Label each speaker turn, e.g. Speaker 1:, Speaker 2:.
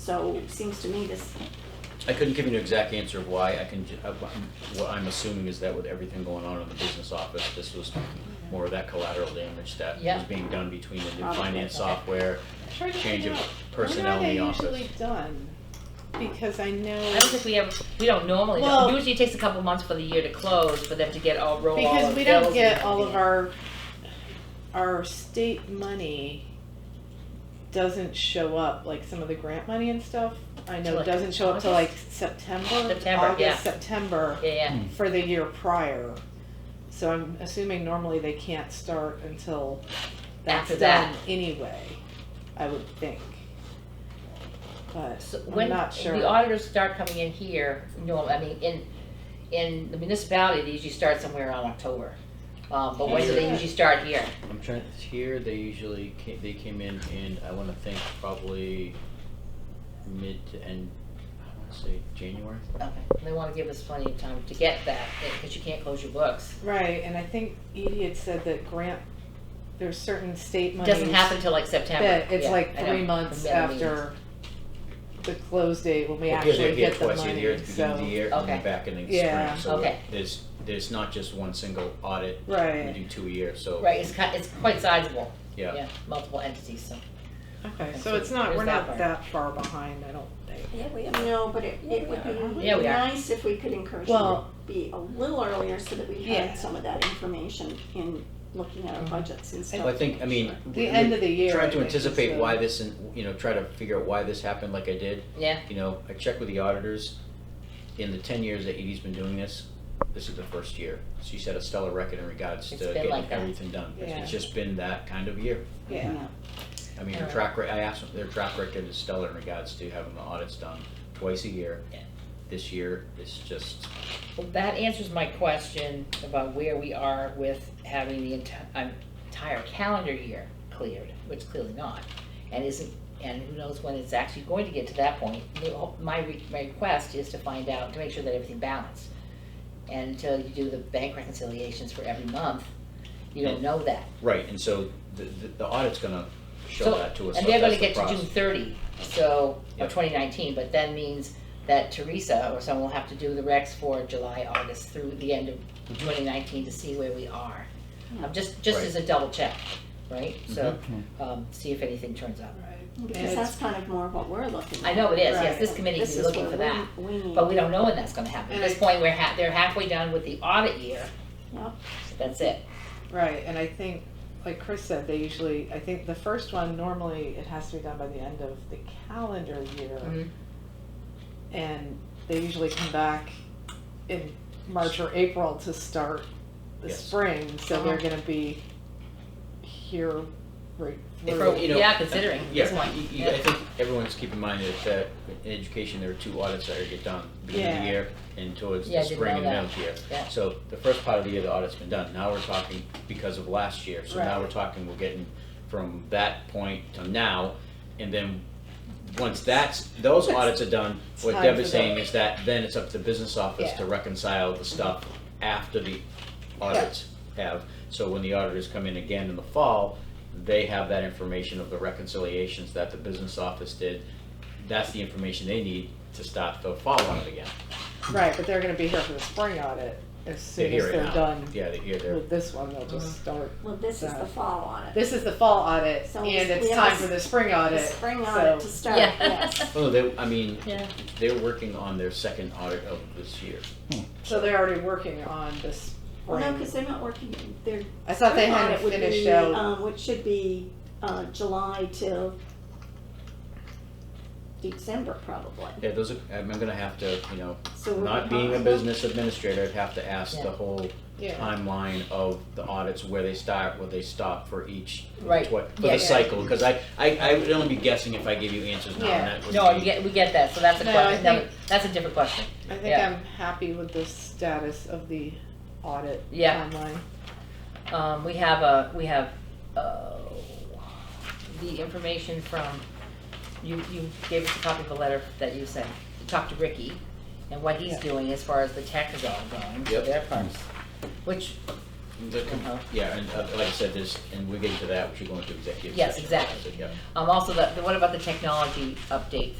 Speaker 1: So seems to me this,
Speaker 2: I couldn't give you an exact answer of why, I can, ju- uh, what I'm assuming is that with everything going on in the business office, this was more of that collateral damage that
Speaker 3: Yeah.
Speaker 2: was being done between the new
Speaker 1: Probably.
Speaker 2: finance software,
Speaker 4: Trying to
Speaker 2: change of
Speaker 4: figure out,
Speaker 2: personnel in the office.
Speaker 4: When are they usually done? Because I know.
Speaker 3: I don't think we ever, we don't normally, do-
Speaker 4: Well-
Speaker 3: usually it takes a couple months for the year to close, for them to get all, roll all the bills.
Speaker 4: Because we don't
Speaker 3: and
Speaker 4: get all of
Speaker 3: everything.
Speaker 4: our, our state money doesn't show up, like some of the grant money and stuff. I
Speaker 3: Till,
Speaker 4: know
Speaker 3: like,
Speaker 4: doesn't show up till like
Speaker 3: August?
Speaker 4: September,
Speaker 3: September, yeah.
Speaker 4: August, September
Speaker 3: Yeah, yeah.
Speaker 4: for the year prior. So I'm assuming normally they can't start until that's
Speaker 3: After
Speaker 4: done
Speaker 3: that.
Speaker 4: anyway, I would think. But
Speaker 3: So
Speaker 4: I'm
Speaker 3: when
Speaker 4: not sure.
Speaker 3: the auditors start coming in here, no, I mean, in, in the municipality, they usually start somewhere around October. Um, but when do they
Speaker 4: Yeah.
Speaker 3: usually start here?
Speaker 2: I'm trying, here, they usually, ca- they came in in, I wanna think, probably mid to end, I wanna say January.
Speaker 3: Okay, they wanna give us plenty of time to get that, because you can't close your books.
Speaker 4: Right, and I think Edie had said that grant, there's certain state
Speaker 3: It
Speaker 4: monies.
Speaker 3: Doesn't happen till like September.
Speaker 4: That it's
Speaker 3: Yeah,
Speaker 4: like
Speaker 3: I know,
Speaker 4: three months
Speaker 3: the middle means.
Speaker 4: after the close date when we
Speaker 2: Well, here they
Speaker 4: actually
Speaker 2: get
Speaker 4: get the
Speaker 2: twice a year,
Speaker 4: money,
Speaker 2: at the beginning of the
Speaker 4: so.
Speaker 2: year, and then
Speaker 3: Okay.
Speaker 2: back in the
Speaker 4: Yeah.
Speaker 2: spring, so
Speaker 3: Okay.
Speaker 2: there's, there's not just one single audit, we
Speaker 4: Right,
Speaker 2: do two a year, so,
Speaker 3: Right, it's ki- it's quite sizable,
Speaker 2: yeah.
Speaker 3: yeah, multiple entities, so.
Speaker 4: okay,
Speaker 3: Okay,
Speaker 4: so it's not,
Speaker 3: there's
Speaker 4: we're
Speaker 3: that
Speaker 4: not
Speaker 3: part.
Speaker 4: that far behind, I don't think.
Speaker 1: yeah, we no, but it, it would be
Speaker 3: Yeah, we are.
Speaker 1: nice if we could encourage them to
Speaker 4: Well-
Speaker 1: be a little earlier so that we
Speaker 4: Yeah.
Speaker 1: had some of that information in looking at
Speaker 3: Mm-hmm.
Speaker 1: our budgets and stuff.
Speaker 2: Well, I think, I mean,
Speaker 4: The
Speaker 2: we-
Speaker 4: end of the year.
Speaker 2: Try to
Speaker 4: I think, is
Speaker 2: anticipate
Speaker 4: the-
Speaker 2: why this, and you know, try to figure out why this happened like I did.
Speaker 3: Yeah.
Speaker 2: You know, I checked with the auditors. In the ten years that Edie's been doing this, this is the first year. She set a stellar record in regards to
Speaker 3: It's been
Speaker 2: getting
Speaker 3: like that.
Speaker 2: everything done.
Speaker 4: Yeah.
Speaker 2: It's just been that kind of year.
Speaker 4: Yeah,
Speaker 2: I mean, her
Speaker 3: Alright.
Speaker 2: track, re- I asked them, their track record is stellar in regards to having the audits done twice a year.
Speaker 3: Yeah.
Speaker 2: This year is just,
Speaker 3: Well, that answers my question about where we are with having the enti- um, entire calendar year cleared, which clearly not. And isn't, and who knows when it's actually going to get to that point. The- My, re- my request is to find out, to make sure that everything balanced. And until you do the bank reconciliations for every month, you don't know that.
Speaker 2: right, and so the, the the audit's gonna show
Speaker 3: So-
Speaker 2: that to us.
Speaker 3: And
Speaker 2: so
Speaker 3: they're gonna
Speaker 2: that's the
Speaker 3: get to June
Speaker 2: process.
Speaker 3: thirty, so,
Speaker 2: Yeah.
Speaker 3: of twenty nineteen, but that means that Teresa or someone will have to do the recs for July, August through the end of
Speaker 2: Mm-hmm.
Speaker 3: twenty nineteen to see where we are. Um, just, just as a double check, right?
Speaker 2: Mm-hmm.
Speaker 3: So, um, see if anything turns up.
Speaker 4: right.
Speaker 1: Because
Speaker 4: And
Speaker 1: that's kind of more what we're looking at.
Speaker 3: I know it is, yes,
Speaker 4: Right.
Speaker 3: this committee
Speaker 1: This
Speaker 3: is
Speaker 1: is
Speaker 3: looking
Speaker 1: what
Speaker 3: for that,
Speaker 1: we- We need.
Speaker 3: but we don't know when that's gonna happen. At
Speaker 4: And
Speaker 3: this
Speaker 4: I-
Speaker 3: point, we're ha, they're halfway done with the audit year.
Speaker 1: Yep.
Speaker 3: That's it.
Speaker 4: Right, and I think, like Chris said, they usually, I think the first one, normally it has to be done by the end of the calendar year.
Speaker 3: Mhm.
Speaker 4: And they usually come back in March or April to start the
Speaker 2: Yes.
Speaker 4: spring,
Speaker 1: Uh-huh.
Speaker 4: so they're gonna be here right
Speaker 2: If-
Speaker 4: through.
Speaker 2: you know,
Speaker 3: Yeah, considering at this
Speaker 2: Yeah,
Speaker 3: point.
Speaker 2: you- you- I think everyone's keeping in mind that, that in education, there are two audits that are get done, beginning of the
Speaker 4: Yeah.
Speaker 2: year and towards
Speaker 3: Yeah,
Speaker 2: the
Speaker 3: I didn't
Speaker 2: spring and
Speaker 3: know
Speaker 2: middle of the year.
Speaker 3: Yeah.
Speaker 2: So the first part of the year, the audit's been done, now we're talking because of last year, so now
Speaker 4: Right.
Speaker 2: we're talking, we're getting from that point to now, and then, once that's, those audits are done, what
Speaker 4: Time
Speaker 2: Deb
Speaker 4: for
Speaker 2: is saying is that then it's up to the business office
Speaker 4: Yeah.
Speaker 2: to reconcile the stuff after the audits have. So when the auditors come in again in the fall, they have that information of the reconciliations that the business office did. That's the information they need to start the fall audit again.
Speaker 4: Right, but they're gonna be here for the spring audit as
Speaker 2: They
Speaker 4: soon as
Speaker 2: hear it
Speaker 4: they're
Speaker 2: now.
Speaker 4: done
Speaker 2: Yeah, they hear their,
Speaker 4: with this one, they'll just start.
Speaker 1: Well, this is the
Speaker 4: So-
Speaker 1: fall audit.
Speaker 4: This is the fall audit
Speaker 1: Uh-huh. So
Speaker 4: and
Speaker 1: we- we
Speaker 4: it's
Speaker 1: have
Speaker 4: time
Speaker 1: a
Speaker 4: for the spring
Speaker 1: The
Speaker 4: audit.
Speaker 1: spring
Speaker 4: so-
Speaker 1: audit to start,
Speaker 3: Yeah.
Speaker 1: yes.
Speaker 2: oh, they, I mean,
Speaker 3: Yeah.
Speaker 2: they're working on their second audit of this year.
Speaker 4: So they're already working on this
Speaker 1: Well,
Speaker 4: spring.
Speaker 1: no, because they're not working, they're
Speaker 4: I thought they
Speaker 1: Spring
Speaker 4: hadn't
Speaker 1: audit would
Speaker 4: finished
Speaker 1: be,
Speaker 4: out.
Speaker 1: um, Which should be, uh, July till December probably,
Speaker 2: Yeah, those are, I'm gonna have to, you know,
Speaker 1: so. we're
Speaker 2: not being a
Speaker 1: behind.
Speaker 2: business administrator, I'd have to ask the
Speaker 3: Yeah.
Speaker 2: whole
Speaker 4: Yeah.
Speaker 2: timeline of the audits, where they start, where they stop for each,
Speaker 3: Right.
Speaker 2: twi- for
Speaker 3: Yeah,
Speaker 2: the
Speaker 3: yeah.
Speaker 2: cycle, because I, I, I would only be guessing if I gave you answers now, and
Speaker 4: Yeah.
Speaker 2: that would be.
Speaker 3: No, you get, we get that, so that's a
Speaker 4: No, I
Speaker 3: question,
Speaker 4: think-
Speaker 3: that's a different question.
Speaker 4: I think
Speaker 3: Yeah.
Speaker 4: I'm happy with the status of the audit
Speaker 3: Yeah.
Speaker 4: timeline.
Speaker 3: Um, we have a, we have, uh, the information from, you, you gave us a copy of the letter that you sent, you talked to Ricky, and what he's
Speaker 4: Yeah.
Speaker 3: doing as far as the tech is all going, so
Speaker 2: Yep.
Speaker 3: their parts. Which,
Speaker 2: The com-
Speaker 3: Uh-huh.
Speaker 2: Yeah, and uh, like I said, this, and we get into that, we should go into executive session.
Speaker 3: Yes, exactly.
Speaker 2: So, Yeah.
Speaker 3: um, also the, the- what about the technology update